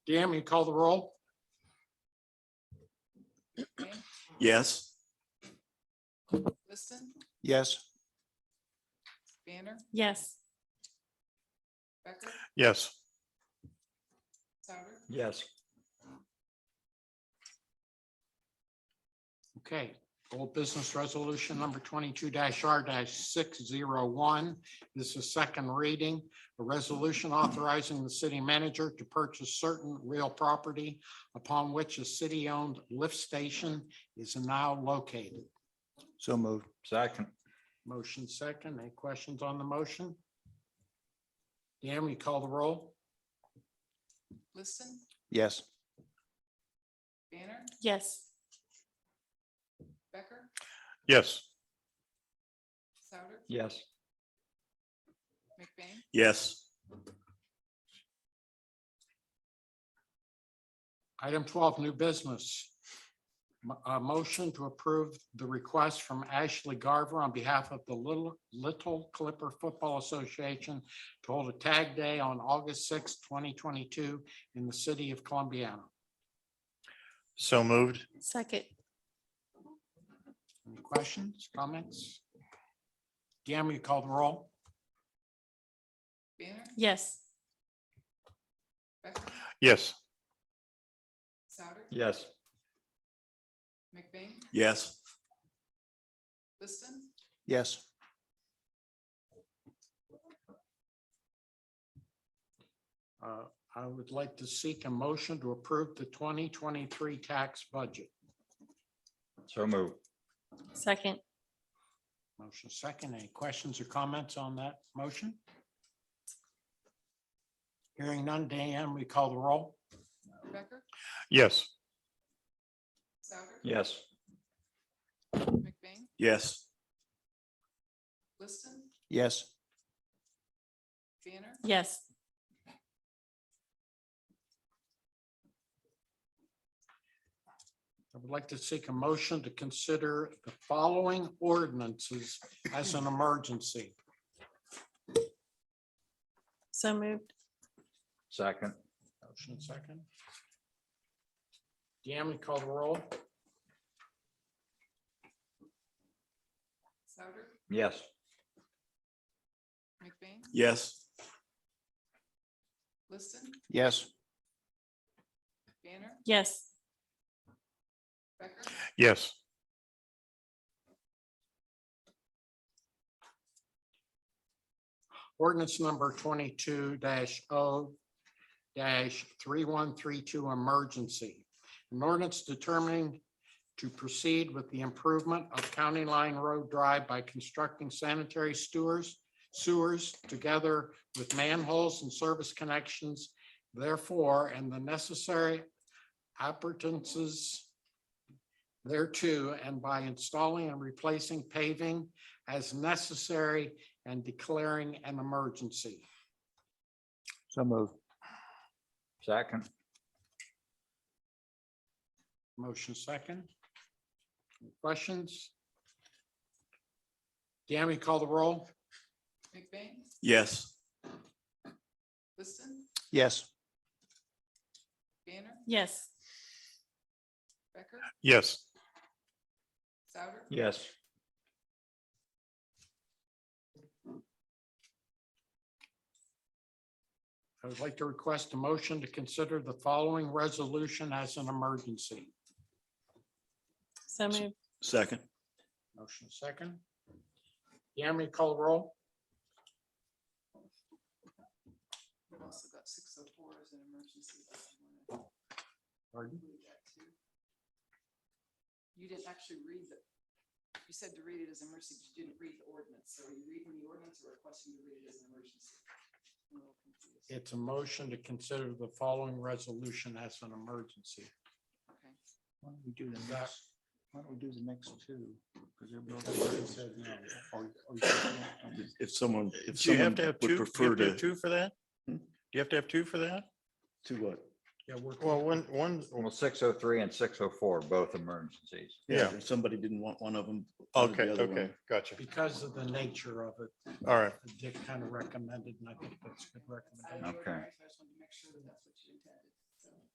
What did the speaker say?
Jam, you call the roll? Yes. Liston, Yes. Banner, Yes. Becker, Yes. Souter, Yes. Okay, old business resolution number twenty-two R six zero one. This is second reading. A resolution authorizing the city manager to purchase certain real property upon which a city-owned lift station is now located. So moved. Second. Motion second. Any questions on the motion? Dan, will you call the roll? Liston, Yes. Banner, Yes. Becker, Yes. Souter, Yes. McBain, Yes. Item twelve, new business. M- A motion to approve the request from Ashley Garver on behalf of the Little, Little Clipper Football Association to hold a tag day on August sixth, twenty twenty-two in the city of Columbiana. So moved. Second. Any questions, comments? Gamma, you call the roll? Banner, Yes. Becker, Yes. Souter, Yes. McBain, Yes. Liston, Yes. Uh, I would like to seek a motion to approve the twenty twenty-three tax budget. So moved. Second. Motion second. Any questions or comments on that motion? Hearing none, Dan, we call the roll. Becker, Yes. Souter, Yes. McBain, Yes. Liston, Yes. Banner, Yes. I would like to seek a motion to consider the following ordinances as an emergency. So moved. Second. Motion second. Dan, we call the roll. Souter, Yes. McBain, Yes. Liston, Yes. Banner, Yes. Becker, Yes. Ordinance number twenty-two 0 three-one-three-two emergency. An ordinance determining to proceed with the improvement of County Line Road Drive by constructing sanitary sewers, sewers together with manholes and service connections, therefore, and the necessary appurtenances thereto, and by installing and replacing paving as necessary and declaring an emergency. So moved. Second. Motion second. Questions? Dan, we call the roll? McBain, Yes. Liston, Yes. Banner, Yes. Becker, Yes. Souter, Yes. I would like to request a motion to consider the following resolution as an emergency. So moved. Second. Motion second. Dan, we call the roll? we've also got six oh four as an emergency. but I wanna Pardon? include that too. You didn't actually read the, you said to read it as emergency, but you didn't read the ordinance, so are you reading the ordinance or requesting to read it as an emergency? I'm a little confused. It's a motion to consider the following resolution as an emergency. Okay. Why don't we do the next- why don't we do the next two? He said no. Or- or you said no. If someone, if Do you have someone to have two? would You prefer have to have to. Two for that? Hmm? Do you have to have two for that? To what? Yeah, we're. Well, one, one, Well, six oh three and six oh four, both emergencies. Yeah. If somebody didn't want one of them. wanted the okay, other one. okay, gotcha. Because of the nature of it, All right. Dick kind of recommended, and I think that's a good I recommendation. didn't know Okay. I just wanted to make sure that that's what